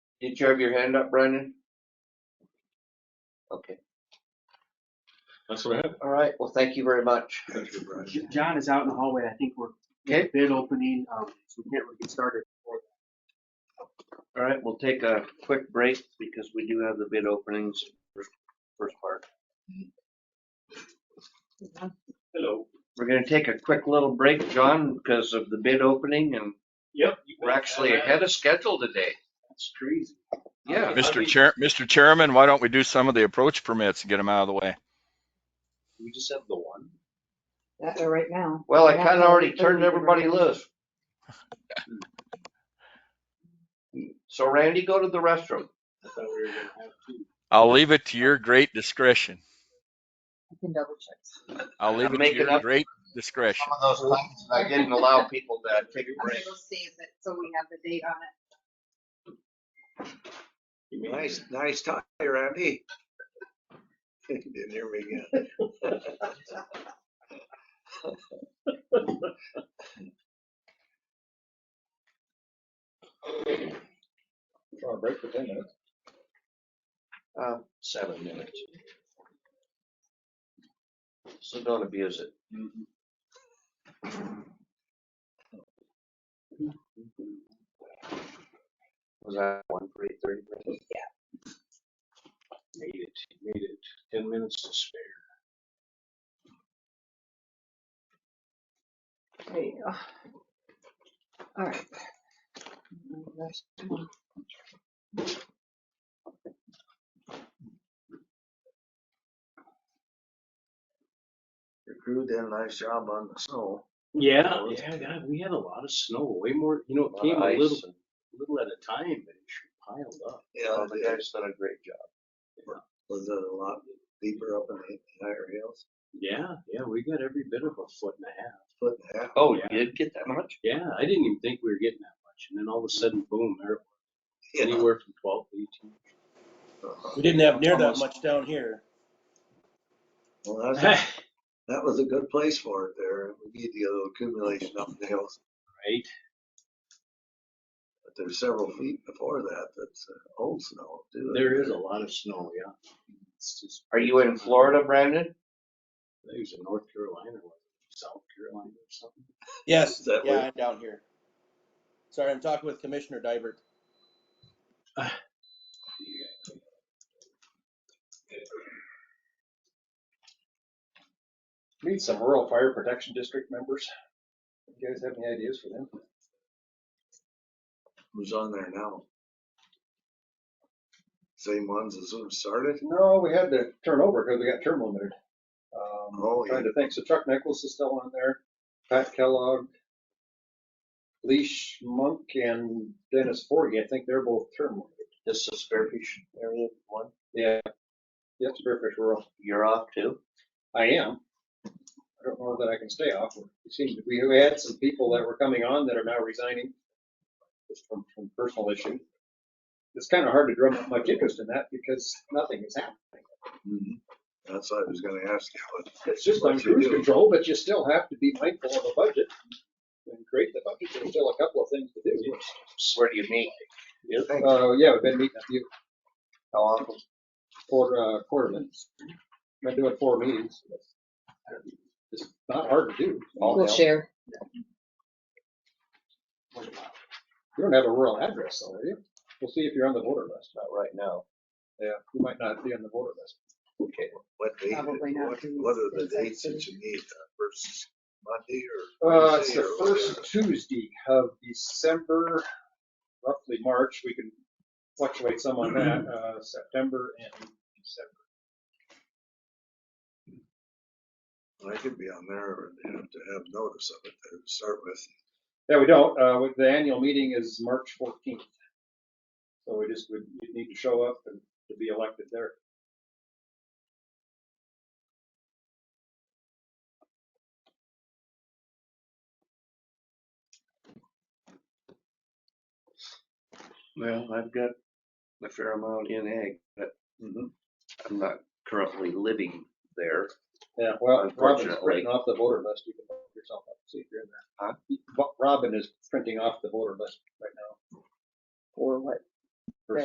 Did you have your hand up, Brandon? Okay. That's what I have. All right. Well, thank you very much. Thank you, Brian. J- John is out in the hallway. I think we're Okay. bid opening, um, so we can't really get started. before that. All right. We'll take a quick break because we do have the bid openings first, first part. Hello. We're gonna take a quick little break, John, because of the bid opening and Yep. we're actually ahead of schedule today. That's crazy. Yeah. Mr. Chair, Mr. Chairman, why don't we do some of the approach permits and get them out of the way? We just have the one. That, uh, right now. Well, I kinda already turned everybody loose. So Randy, go to the restroom. I thought we were gonna have two. I'll leave it to your great discretion. I can double check. I'll leave I'm it to making your up- great discretion. Some of those times I didn't allow people to take a Okay, break. we'll see if it, so we have the date on it. Nice, nice tie, Randy. Didn't hear me again. Trying to break for ten minutes. Uh, Seven minutes. So don't abuse it. Was that one for eight thirty? Made it, made it. Ten minutes to spare. There you go. uh, All right. Mm, there's one. Your crew did a nice job on the snow. Yeah, yeah, God, we had a lot of snow, way more, you know, it came a little, little at a time, but it sure piled up. Yeah, the yeah, guys done a great job. was it a lot deeper up in the higher hills? Yeah, yeah, we got every bit of a foot and a half. Foot and a half. Oh, Yeah. you did get that much? Yeah, I didn't even think we were getting that much. And then all of a sudden, boom, there, it was. Yeah. anywhere from twelve to eighteen. Uh-huh. We didn't have near that Almost. much down here. Well, that's, that was a good place for it there. We need the little accumulation up in the hills. Right? But there's several feet before that, that's uh, old snow too. There is a lot of snow, yeah. It's just- Are you in Florida, I Brandon? think it was in North Carolina or South Carolina or something. Yes, Is that yeah, where- I'm down here. Sorry, I'm talking with Commissioner Dybert. Need some rural fire protection district members. You guys have any ideas for them? Who's on there now? Same ones as when it started? No, we had to turn over because we got term limited. Um, Oh, yeah. trying to think. So Chuck Nichols is still on there, Pat Kellogg, Leash Monk and Dennis Forgy. I think they're both term limited. This is Spearfish area one. Yeah. Yep, Spearfish Rural. You're off too? I am. I don't know that I can stay off. It seems we we had some people that were coming on that are now resigning just from, from personal issue. It's kind of hard to drum up much interest in that because nothing is happening. Mm-hmm. That's what I was gonna ask you. What- It's just what on you cruise do. control, but you still have to be mindful of the budget and create the budget. There's still a couple of things to do. Where do you meet? Uh, yeah, we've been meeting a few How often? quarter, uh, quarterly. Been doing four meetings. It's not hard to do. We'll share. You don't have a rural address, though, do you? We'll see if you're on the voter list. Not right now. Yeah, you might not be on the voter list. Okay. What date, Probably not, what, because what are the it's like dates that thirty. you need, uh, versus Monday or? Uh, it's Tuesday the or first Tuesday of December, roughly March. We can fluctuate some on that, uh, September and December. whatever? I could be on there and have to have notice of it there to start with. Yeah, we don't. Uh, with- the annual meeting is March fourteenth. So we just would, you'd need to show up and to be elected there. Well, I've got a fair amount in ag, but I'm not currently living there. Yeah, well, Robin's Unfortunately. printing off the voter list. You can vote yourself up, see if you're in Huh? there. Bo- Robin is printing off the voter list right now. Or what? for